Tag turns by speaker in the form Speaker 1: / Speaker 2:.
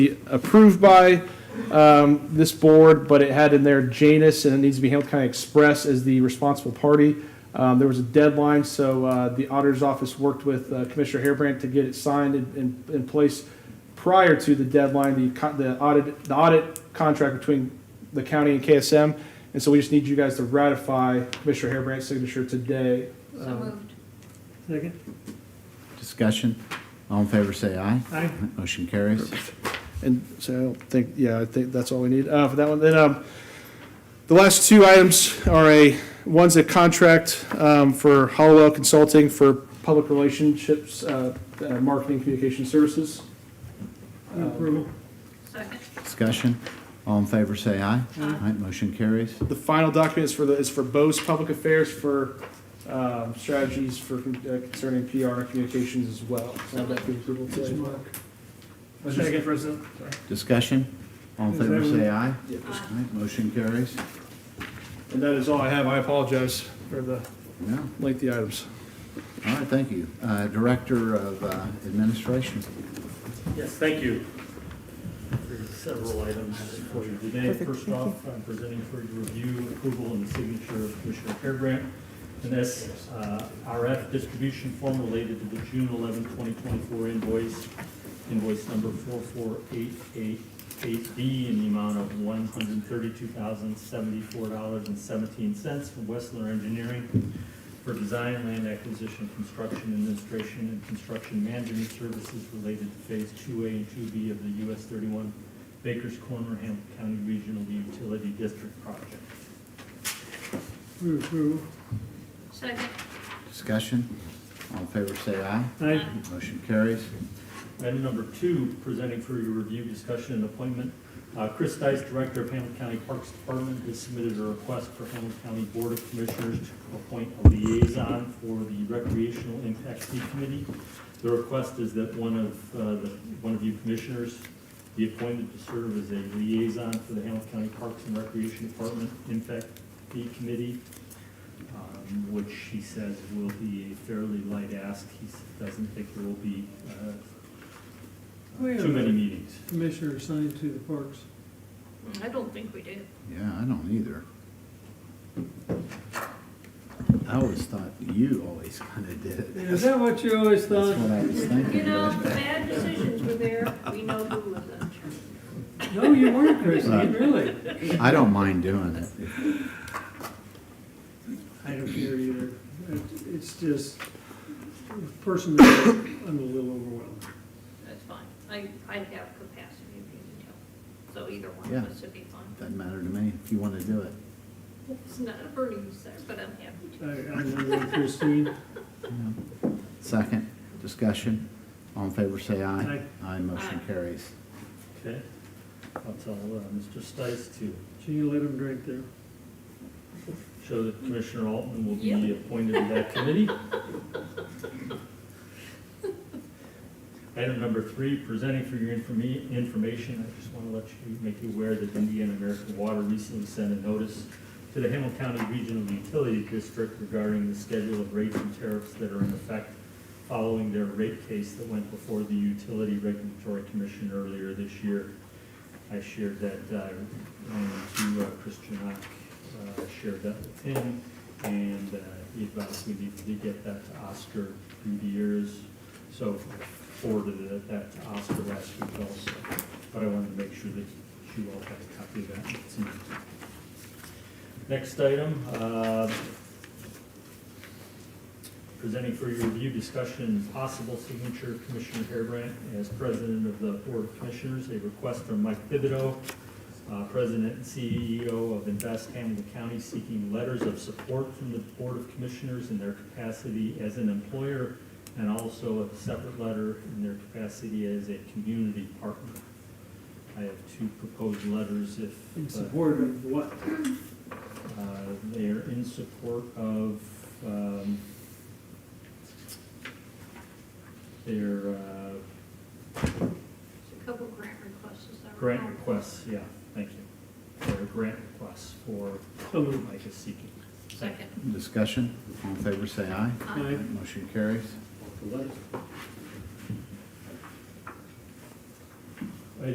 Speaker 1: approved by um, this board, but it had in there Janus, and it needs to be Hamilton County Express as the responsible party. Um, There was a deadline, so uh, the auditor's office worked with uh, Commissioner Harebrant to get it signed and- and in place prior to the deadline, the co- the audit, the audit contract between the county and KSM. And so we just need you guys to ratify Commissioner Harebrant's signature today.
Speaker 2: So
Speaker 1: Um,
Speaker 2: moved.
Speaker 3: Second?
Speaker 4: Discussion? All in favor, say aye.
Speaker 3: Aye.
Speaker 4: Motion carries.
Speaker 1: And so I don't think, yeah, I think that's all we need uh, for that one. Then um, the last two items are a, one's a contract um, for Hollowell Consulting for public relationships, uh, uh, marketing, communication services.
Speaker 3: Move Approval.
Speaker 2: Second.
Speaker 4: Discussion? All in favor, say aye.
Speaker 2: Aye.
Speaker 4: Motion carries.
Speaker 1: The final document is for the, is for Bose Public Affairs for um, strategies for uh, concerning PR and communications as well. So I'll have that for approval today.
Speaker 3: Second, President.
Speaker 4: Discussion? All in
Speaker 3: Is
Speaker 4: favor,
Speaker 3: everyone-
Speaker 4: say aye.
Speaker 1: Yeah.
Speaker 4: Aye. Motion carries.
Speaker 1: And that is all I have. I apologize for the
Speaker 4: No.
Speaker 1: lengthy items.
Speaker 4: All right, thank you. Uh, Director of uh, Administration.
Speaker 5: Yes, thank you. There are several items for you today. First off, I'm presenting for your review, approval, and the signature of Commissioner Harebrant. And that's uh, RF distribution form related to the June 11, 2024 invoice, invoice number 44888B in the amount of $132,074.17 from Westler Engineering for design, land acquisition, construction administration, and construction management services related to Phase 2A and 2B of the US 31 Bakers Corner Hamilton County Regional Utility District project.
Speaker 3: Move approval.
Speaker 2: Second.
Speaker 4: Discussion? All in favor, say aye.
Speaker 3: Aye.
Speaker 4: Motion carries.
Speaker 5: Item number two, presenting for your review, discussion, and appointment. Uh, Chris Dice, Director of Hamilton County Parks Department, has submitted a request for Hamilton County Board of Commissioners to appoint a liaison for the Recreational Impact Fee Committee. The request is that one of, uh, the- one of you commissioners be appointed to serve as a liaison for the Hamilton County Parks and Recreation Department Impact Fee Committee um, which he says will be a fairly light ask. He s- doesn't think there will be uh,
Speaker 3: Wait a
Speaker 5: too many
Speaker 3: minute.
Speaker 5: meetings.
Speaker 3: Commissioner assigned to the parks.
Speaker 2: Mm, I don't think we did.
Speaker 4: Yeah, I don't either. I always thought you always kind of did it.
Speaker 3: Is
Speaker 4: That's
Speaker 3: that what you always thought?
Speaker 4: what I was thinking.
Speaker 2: You know, the bad decisions were there, we know who was in charge.
Speaker 3: No, you weren't, Christie,
Speaker 4: Right.
Speaker 3: really.
Speaker 4: I don't mind doing it.
Speaker 3: I don't care either. It- It's just, personally, I'm a little overwhelmed.
Speaker 2: That's fine. I, I have capacity if you need help. So either one
Speaker 4: Yeah.
Speaker 2: of us would be fine.
Speaker 4: Doesn't matter to me if you want to do it.
Speaker 2: It's not a burden, sir, but I'm happy
Speaker 3: I, I'm not like Christine.
Speaker 4: Second, discussion. All in favor, say aye.
Speaker 3: Aye.
Speaker 4: Aye, motion
Speaker 2: Aye.
Speaker 4: carries.
Speaker 5: Okay? I'll tell uh, Mr. Stice to
Speaker 3: Can you let him drink there?
Speaker 5: show that Commissioner Altman will be
Speaker 2: Yeah.
Speaker 5: appointed to that committee. Item number three, presenting for your informa- information, I just want to let you, make you aware that Indiana American Water recently sent a notice to the Hamilton County Regional Utility District regarding the schedule of rates and tariffs that are in effect following their rate case that went before the Utility Regulatory Commission earlier this year. I shared that, uh, um, to uh, Christian Ock, uh, shared that with him, and uh, he advised me to get that to Oscar Gutierrez. So I forwarded it- uh, that to Oscar last week also, but I wanted to make sure that you all had a copy of that. It's in- Next item, uh, presenting for your review, discussion, and possible signature, Commissioner Harebrant as President of the Board of Commissioners, a request from Mike Thibodeau, uh, President and CEO of Invest Hamilton County, seeking letters of support from the Board of Commissioners in their capacity as an employer, and also a separate letter in their capacity as a community partner. I have two proposed letters if.
Speaker 3: In
Speaker 5: uh,
Speaker 3: support of what?
Speaker 5: uh, They are in support of, um, their uh,
Speaker 2: to. A couple grant requests, is that right?
Speaker 5: grant requests, yeah, thank you. Their grant requests for
Speaker 3: So moved.
Speaker 5: Micah Seeking.
Speaker 2: Second. Uh,
Speaker 4: Discussion. All in favor, say aye.
Speaker 2: Aye.
Speaker 3: Aye.
Speaker 4: Motion carries.